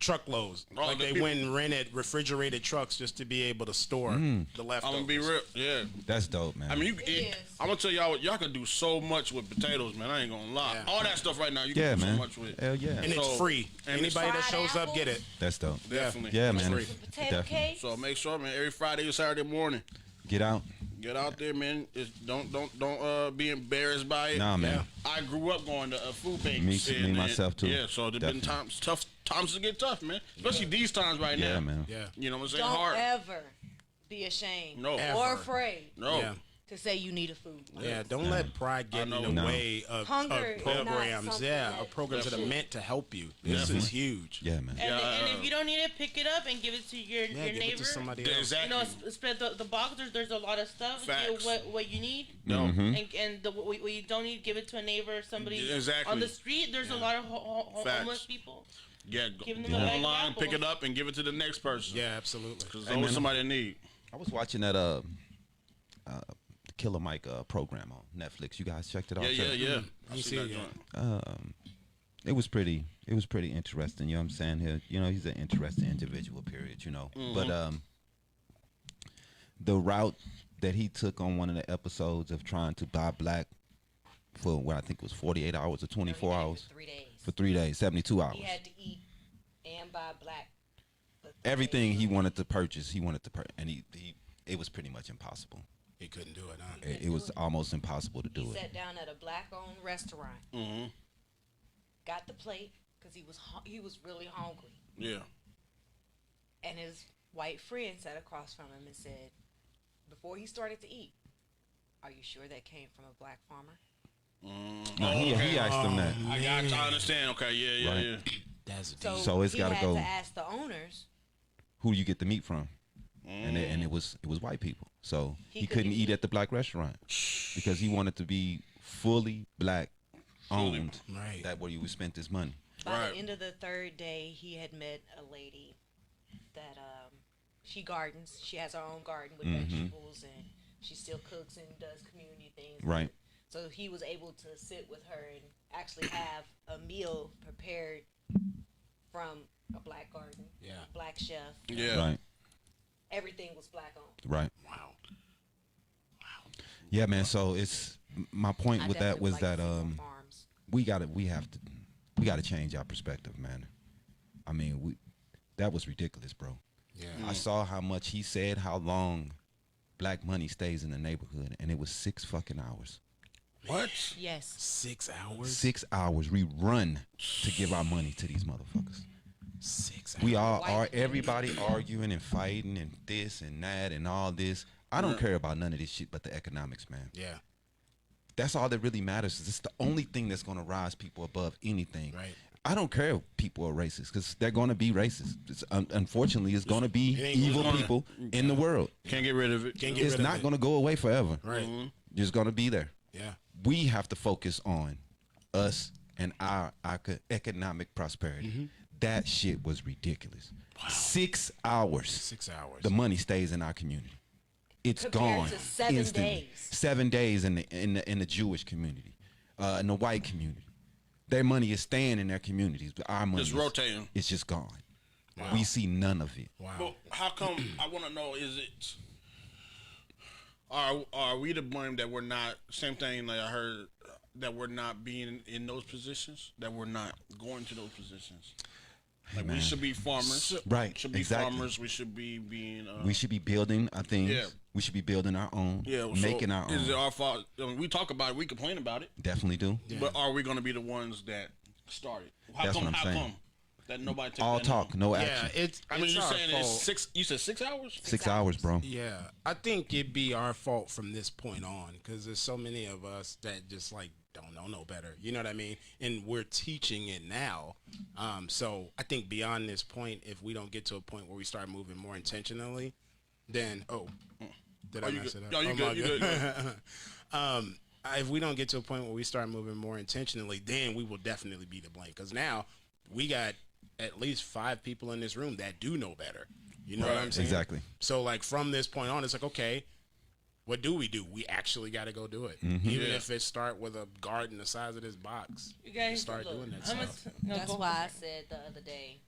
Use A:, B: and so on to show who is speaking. A: truckloads.
B: Oh,
A: like
B: the
A: they
B: people-
A: went and rented refrigerated trucks just to be able to store
C: Mm.
A: the
B: I'm
A: leftovers.
B: gonna be real. Yeah.
C: That's dope, man.
B: I mean, you,
D: It
B: it,
D: is.
B: I'm gonna tell y'all what y'all can do so much with potatoes, man. I ain't gonna lie.
A: Yeah.
B: All that stuff right now, you can
C: yeah,
B: do
C: man.
B: so much with.
C: Hell yeah.
A: and it's
B: So-
A: free.
B: and it's
A: Anybody that
D: fried
A: shows up,
D: apples?
A: get it.
C: That's dope.
B: Definitely.
C: Yeah, man.
A: free.
D: Potato
C: Definitely.
D: cake.
B: So make sure, man, every Friday or Saturday morning,
C: Get out.
B: get out there, man. Just don't don't don't uh, be embarrassed by it.
C: Nah, man.
B: I grew up going to uh, food banks.
C: Me too- me
B: and-
C: myself too.
B: Yeah, so there's been
C: Definitely.
B: times tough times to get tough, man. Especially these times right now.
C: Yeah, man.
A: Yeah.
B: You know what I'm saying?
D: Don't
B: Hard.
D: ever be ashamed
B: No.
D: or
A: Ever.
D: afraid
B: no.
A: Yeah.
D: to say you need a food.
A: Yeah, don't let pride get in
B: know.
A: the
C: No.
A: way of, of
D: Hunger is not
A: programs.
D: something
A: Yeah,
D: that-
A: of programs that are meant to help you. This is huge.
C: Yeah, man.
E: And,
B: Yeah,
E: and
B: uh,
E: if you don't need it, pick it up and give it to your,
A: Yeah,
E: your
A: give
E: neighbor.
A: it to somebody
B: Yeah,
A: else.
E: You
B: exactly.
E: know, s- spread the, the box. There's, there's a lot of stuff.
B: Facts.
E: Get what, what you need.
B: No.
C: Mm-hmm.
B: Mm-hmm.
E: And, and the, what, what you don't need, give it to a neighbor or somebody
B: Yeah, exactly.
E: on the street. There's a lot of ho- ho- ho-
B: Facts.
E: homeless people.
B: Yeah. Go,
E: Give them
B: go
E: the bag of
B: online, pick
E: apples.
B: it up, and give it to the next person.
A: Yeah, absolutely.
B: There's always
C: man.
B: somebody in need.
C: I was watching that uh, uh Killer Mike uh, program on Netflix. You guys checked it out?
B: Yeah, yeah,
C: too?
B: yeah.
A: Mm-hmm. You
B: seen
A: see
B: that
A: it, yeah.
B: joint.
C: It was pretty. It was pretty interesting. You know what I'm saying? Here, you know, he's an interesting individual. Period. You know,
B: Mm-hmm.
C: but um, the route that he took on one of the episodes of trying to buy black for what I think was 48 hours or 24
D: Every day
C: hours
D: For three days.
C: for three days, 72 hours.
D: He had to eat and buy black. for three
C: Everything
D: days.
C: he wanted to purchase, he wanted to purchase, and he, he it was pretty much impossible.
A: He couldn't do it, huh?
C: It, it was almost impossible to do
D: He
C: it.
D: sat down at a black-owned restaurant.
B: Mm-hmm.
D: Got the plate because he was hu- he was really hungry,
B: Yeah.
D: and his white friend sat across from him and said, before he started to eat, "Are you sure that came from a black farmer?"
C: No, he, he asked him that.
B: I got. I understand. Okay. Yeah. Yeah.
C: Right.
B: Yeah.
A: That's deep.
D: So,
C: So it's
D: he
C: gotta
D: had
C: go-
D: to ask the owners.
C: who you get the meat from, and it, and it was it was white people. So he,
D: He
C: couldn't
D: couldn't
C: eat
D: eat.
C: at the black restaurant because he wanted to be fully black owned.
A: Right.
C: That where you would spend this money.
D: By
B: Right.
D: the end of the third day, he had met a lady that um, she gardens. She has her own garden with
C: Mm-hmm.
D: vegetables, and she still cooks and does community things.
C: Right.
D: So he was able to sit with her and actually have a meal prepared from a black garden,
A: Yeah.
D: black chef.
B: Yeah.
C: Right.
D: Everything was black owned.
C: Right.
A: Wow.
C: Yeah, man. So it's my point
D: I
C: with that
D: definitely
C: was
D: like to
C: that
D: see more
C: um
D: farms.
C: we got to we have to we got to change our perspective, man. I mean, we that was ridiculous, bro.
A: Yeah.
C: I saw how much he said how long black money stays in the neighborhood and it was 6 fucking hours.
B: What?
D: yes,
A: Six hours.
C: six hours we run to give our money to these motherfuckers.
A: Six hours.
C: We all
D: White
C: are
D: people.
C: everybody arguing and fighting and this and that and all this. I don't care about none of this shit but the economics, man.
A: Yeah.
C: That's all that really matters. It's the only thing that's gonna rise people above anything.
A: Right.
C: I don't care if people are racist because they're gonna be racist. It's, un- unfortunately, it's gonna be
A: ain't
C: evil
B: gonna-
C: people in the world.
B: Can't get rid of it.
A: Can't get
C: It's
A: rid of
C: not
A: it.
C: gonna go away forever.
A: Right.
B: Mm-hmm.
C: It's gonna be there.
A: Yeah.
C: we have to focus on us and our, our co- economic prosperity.
B: Mm-hmm.
C: That shit was ridiculous. Six hours.
A: Six hours.
C: The money stays in our community. It's
D: Compared
C: gone
D: to seven
C: instantly.
D: days.
C: Seven days in the in the, in the Jewish community, uh, in the white community, their money is staying in their communities, but our money
B: Just
C: is-
B: rotating.
C: It's just gone. We see none of it.
A: wow.
B: But how come? I want to know. Is it? Are are we to blame that we're not? Same thing. Like I heard uh, that we're not being in those positions. That we're not going to those positions. Like we should be farmers,
C: Right,
B: Should be
C: exactly.
B: farmers. We should be being. Uh,
C: We should be building our things.
B: Yeah.
C: We should be building our own.
B: yeah, so
C: making our
B: Is
C: own.
B: it our fault? I mean, we talk about it. We complain about it.
C: Definitely do.
B: But are we going to be the ones that started? How
C: That's
B: come?
C: what I'm
B: how
C: saying.
B: come that nobody took
C: All
B: that note?
C: talk, no
A: yeah,
C: action.
A: it's.
B: I mean,
A: it's
B: you're
A: our
B: saying it's
A: fault.
B: six. You said six hours.
C: Six hours, bro.
A: Yeah, I think it'd be our fault from this point on because there's so many of us that just like don't know no better. You know what I mean? And we're teaching it now. Um, so I think beyond this point, if we don't get to a point where we start moving more intentionally, then oh, did
B: Oh,
A: I
B: you
A: mess
B: good.
A: it up?
B: No, you
A: Oh,
B: good,
A: my
B: you
A: God.
B: good, you
A: um, I- if we don't get to a point where we start moving more intentionally, then we will definitely be to blame. Because now we got at least five people in this room that do know better. You know what I'm
B: Right.
A: saying?
C: Exactly.
A: So like from this point on, it's like okay, what do we do? We actually got to go do it, even
B: Yeah.
A: if it start with a garden the size of this box.
E: You guys
A: start
E: look,
A: doing that
E: I'm a-
A: stuff.
E: no,
D: that's
E: go-
D: why I said the other day